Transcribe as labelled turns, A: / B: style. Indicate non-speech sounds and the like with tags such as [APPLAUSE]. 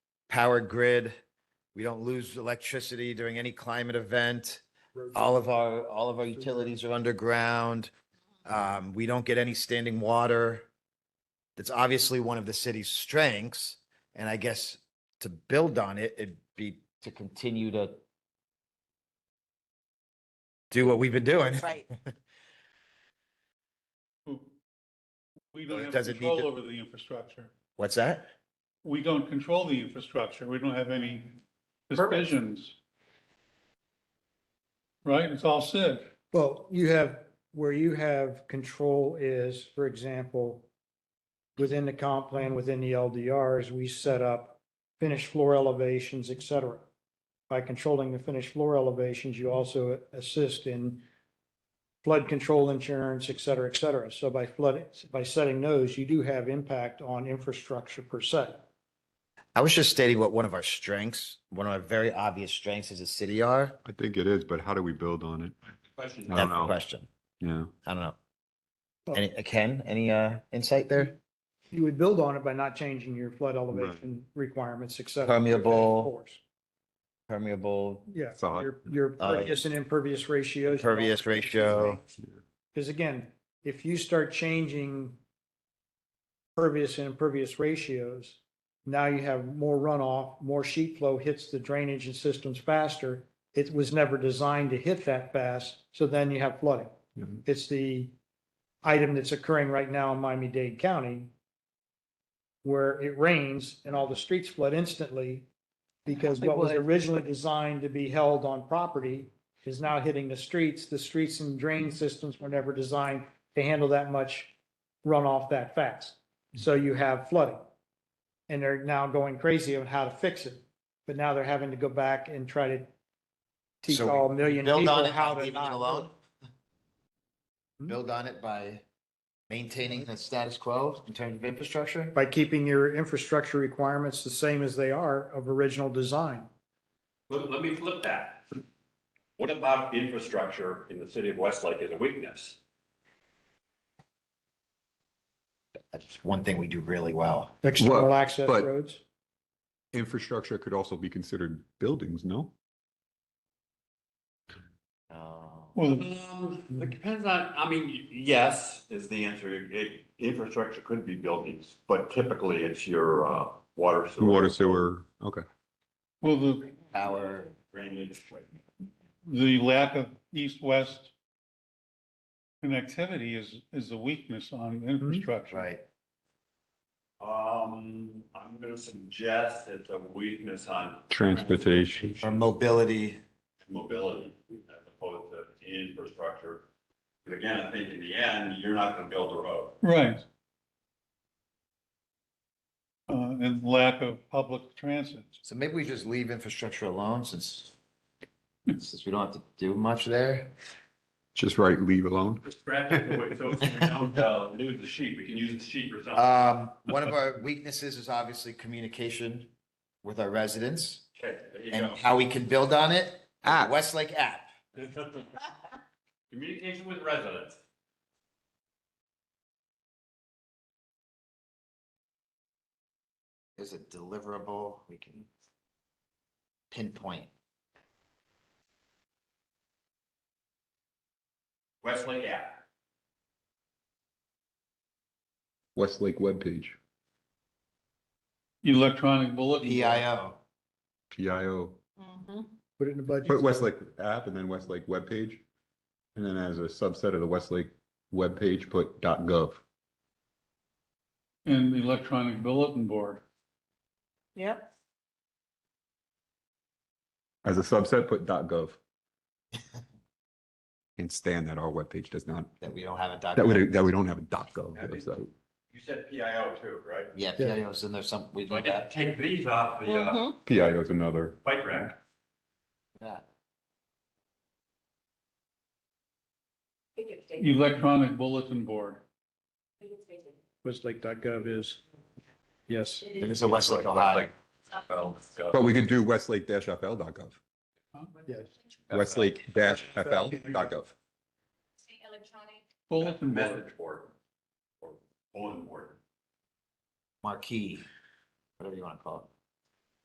A: powered grid. We don't lose electricity during any climate event.
B: Roads.
A: All of our, all of our utilities are underground. Um, we don't get any standing water. That's obviously one of the city's strengths. And I guess to build on it, it'd be to continue to do what we've been doing.
C: Right.
B: We
A: Well, it
B: don't have
A: doesn't need
B: control
A: to-
B: over the infrastructure.
A: What's that?
B: We don't control the infrastructure. We don't have any decisions. Right? It's all Sid.
D: Well, you have, where you have control is, for example, within the comp plan, within the LDRs, we set up finished floor elevations, et cetera. By controlling the finished floor elevations, you also assist in flood control insurance, et cetera, et cetera. So by flood, by setting those, you do have impact on infrastructure per se.
A: I was just stating what one of our strengths, one of our very obvious strengths as a city are.
E: I think it is, but how do we build on it? I
A: That's
E: don't
A: the
E: know.
A: question.
E: Yeah.
A: I don't know.
D: Well-
A: Any, uh, Ken, any uh insight
D: Mm-hmm.
A: there?
D: You would build on it by not changing your flood elevation requirements, et cetera.
A: Permeable.
D: Of course.
A: Permeable,
D: Yeah,
E: That's all I-
D: your, your
A: Uh,
D: pervious and impervious ratios.
A: impervious ratio.
D: Because again, if you start changing pervious and impervious ratios, now you have more runoff, more sheet flow hits the drainage and systems faster. It was never designed to hit that fast, so then you have flooding.
E: Mhm.
D: It's the item that's occurring right now in Miami-Dade County where it rains and all the streets flood instantly because what was originally designed to be held on property is now hitting the streets. The streets and drain systems were never designed to handle that much runoff that fast. So you have flooding. And they're now going crazy on how to fix it. But now they're having to go back and try to teach
A: So we
D: all a million
A: build on
D: people
A: it by
D: how to
A: leaving it
D: not.
A: alone?
D: Hmm?
A: Build on it by maintaining the status quo in terms of infrastructure?
D: By keeping your infrastructure requirements the same as they are of original design.
F: Let, let me flip that. What about infrastructure in the city of Westlake as a weakness?
A: That's one thing we do really well.
D: External access
E: but-
D: roads.
E: Infrastructure could also be considered buildings, no?
A: Uh,
B: Well,
F: Um, it depends on, I mean, yes, is the answer. It- Infrastructure could be buildings, but typically it's your, uh, water. sewer,
E: Water, sewer, okay.
B: well, the,
A: Power,
F: Drainage.
B: the lack of east-west connectivity is, is a weakness on infrastructure.
A: Mm-hmm. right.
F: Um, I'm gonna suggest it's a weakness on
E: Transportation.
A: Or mobility.
F: mobility as opposed to infrastructure. But again, I think in the end, you're not gonna build a road.
B: Right. Uh, and lack of public transit.
A: So maybe we just leave infrastructure alone since, since we don't have to do much there.
E: Just right, leave alone.
F: Just scratch it away, so
A: [LAUGHS]
F: we don't, uh, lose the sheet, we can use the sheet for something.
A: Um, one of our weaknesses is obviously communication with our residents
F: Okay, there you
A: and
F: go.
A: how we can build on it.
E: App.
A: Westlake app.
F: [LAUGHS] Communication with residents.
A: Is it deliverable? We can pinpoint.
F: Westlake app.
E: Westlake webpage,
B: Electronic bulletin.
A: E
B: board.
A: PIO.
E: PIO.
D: Put it in the budget.
E: Put Westlake app and then Westlake webpage. And then as a subset of the Westlake webpage, put .gov.
B: And electronic bulletin board.
C: Yep.
E: As a subset, put .gov. And stand that our webpage does not,
A: that we don't have a document.
E: that we, that we don't have a .gov website.
F: You said PIO too, right?
A: Yeah,
D: Yeah.
A: PIO's in there some, we
F: So I
A: do
F: gotta
A: that.
F: take these off the, uh,
E: PIO is another.
F: bike rack.
A: that.
B: Electronic bulletin board.
D: Westlake.gov is, yes.
A: There's a Westlake, Ohio.
E: But we could do westlake-fl.gov.
D: Yes.
E: Westlake-fl.gov.
G: Electronic.
B: Bulletin board.
F: Message board. Or bulletin board.
A: Marquee, whatever you want to call